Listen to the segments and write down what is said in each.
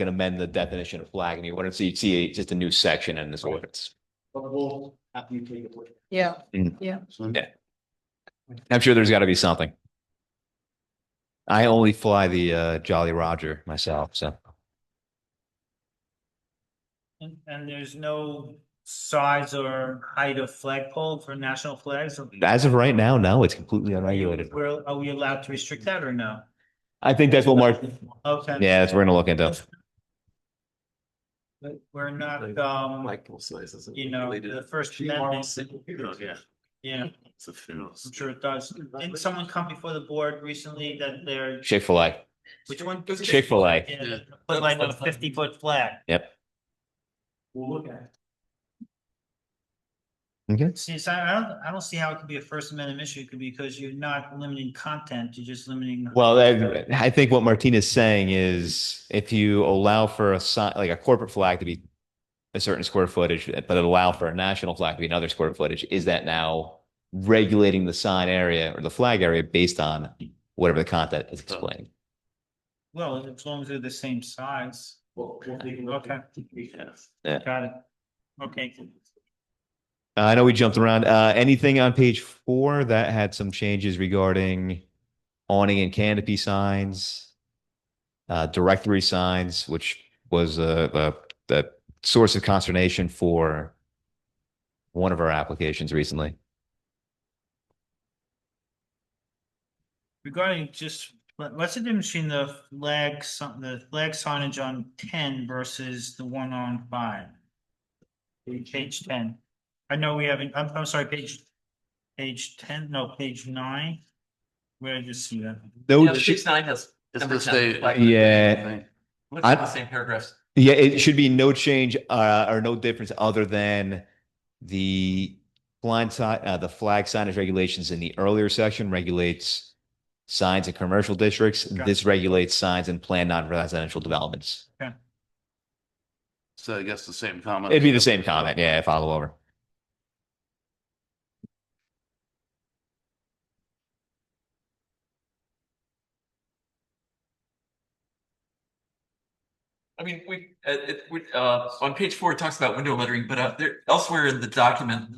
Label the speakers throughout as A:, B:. A: can amend the definition of flag and you wouldn't see, see just a new section in this ordinance.
B: But we'll, after you take a look.
C: Yeah,
B: So-
A: Yeah. I'm sure there's got to be something. I only fly the uh, Jolly Roger myself, so.
D: And, and there's no size or height of flagpole for national flags? or-
A: As of right now, no, it's completely
D: Are you-
A: unregulated.
D: We're, are we allowed to restrict that or no?
A: I think that's what Mark,
D: Okay.
A: yeah, that's, we're gonna look into.
D: But we're not, um,
B: says it's
D: you know, the First Amendment, yeah,
B: It's a funeral.
D: I'm sure it does. Didn't someone come before the board recently that they're,
A: Chick-fil-A,
D: which one?
A: Chick-fil-A.
D: Yeah, Put like a fifty foot flag.
B: We'll look at
A: Okay.
D: See, so I don't, I don't see how it could be a First Amendment issue could be because you're not limiting content, you're just limiting.
A: Well, I, I think what Martina's saying is if you allow for a sign, like a corporate flag to be a certain square footage, but allow for a national flag to be another square footage, is that now regulating the sign area or the flag area based on whatever the content is explaining?
D: Well, as long as they're the same size.
B: Well, we'll take a look.
D: Okay, got it. Okay.
A: Uh, I know we jumped around. Uh, anything on page four that had some changes regarding awning and canopy signs, uh, directory signs, which was a, a, the source of consternation for one of our applications recently.
D: Regarding just, what- what's the difference between the flag, sign- the flag signage on ten versus the one on five? Page ten. I know we haven't, I'm, I'm sorry, page, page ten, no, page nine. Where did you see that?
A: No,
E: Yeah, the
A: ch-
E: six nine has.
B: It's
E: number
B: just
E: 10.
B: a-
E: Like,
A: yeah,
E: Looks like
A: I-
E: the same paragraphs.
A: yeah, it should be no change, uh, or no difference other than the blind side, uh, the flag signage regulations in the earlier section regulates signs in commercial districts.
D: Okay.
A: This regulates signs in planned non-residential developments.
F: So I guess the same comment.
A: It'd be the same comment. Yeah, follow over.
E: I mean, we, uh, it, we, uh, on page four, it talks about window lettering, but uh, there, elsewhere in the document,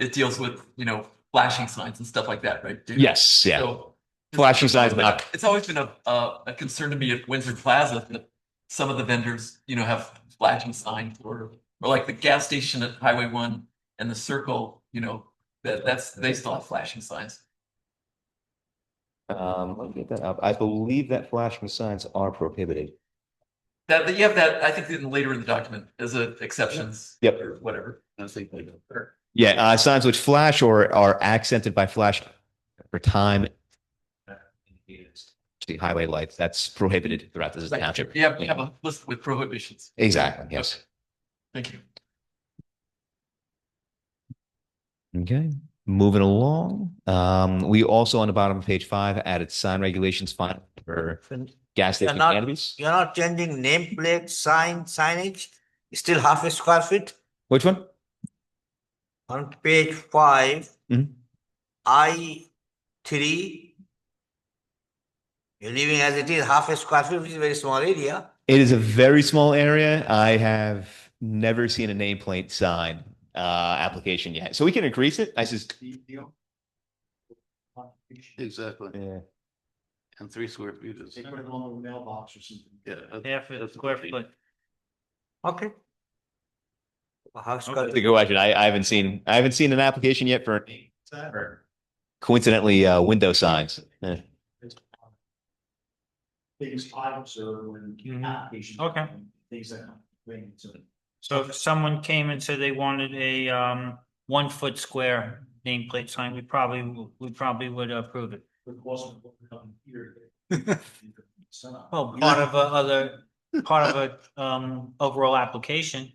E: it deals with, you know, flashing signs and stuff like that, right? Dude?
A: Yes, yeah.
E: So-
A: Flashing signs,
E: But
A: not-
E: It's always been a, a, a concern to me at Windsor Plaza that some of the vendors, you know, have flashing signs or, or like the gas station at Highway One and the circle, you know, that, that's, they still have flashing signs.
A: Um, let me get that up. I believe that flashing signs are prohibited.
E: That, that you have that, I think in later in the document as a exceptions.
A: Yep.
E: Or whatever.
F: I think they do.
E: Or-
A: Yeah, uh, signs which flash or are accented by flash for time. See highway lights, that's prohibited throughout this
E: Right.
A: township.
E: You have, you have a list with prohibitions.
A: Exactly, yes.
E: Thank you.
A: Okay, moving along. Um, we also on the bottom of page five added sign regulations fine for gas station
G: And not-
A: cannabis.
G: You're not changing nameplate, sign, signage, still half a square feet?
A: Which one?
G: On page five,
A: Mhm.
G: I three. You're leaving as it is, half a square feet, which is a very small area.
A: It is a very small area. I have never seen a nameplate sign uh application yet. So we can increase it. I just.
B: the deal. They
F: Exactly.
A: Yeah.
F: And three square feet is,
B: put it on the mailbox or something.
F: yeah. that-
D: Half a
F: that's
D: square
F: pretty-
D: foot.
G: Okay. A Half square.
A: That's a good question. I I haven't seen, I haven't seen an application yet for
B: Is that right?
A: coincidentally uh window signs. Yeah.
B: Things I observe when
D: Mhm.
B: applications.
D: Okay.
B: Things that. bring to it.
D: So if someone came and said they wanted a um one foot square nameplate sign, we probably, w- we probably would approve it.
B: The cost of what we have here. So,
D: Well, part of a other, part of a um overall application.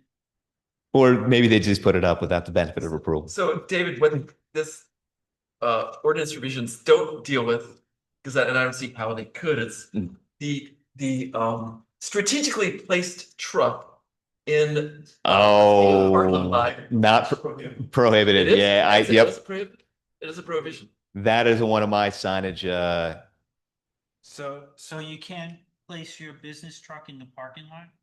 A: Or maybe they just put it up without the benefit of approval.
E: So David, what this uh ordinance revisions don't deal with, because I, and I don't see how they could, it's
A: Mm.
E: the, the um strategically placed truck in. uh, Parking
A: Oh,
E: lot.
A: not pro-
E: It
A: prohibited.
E: is?
A: Yeah, I,
E: Yes, it
A: yep.
E: is prohib- It is a prohibition.
A: That is one of my signage, uh,
D: So, so you can't place your business truck in the parking lot?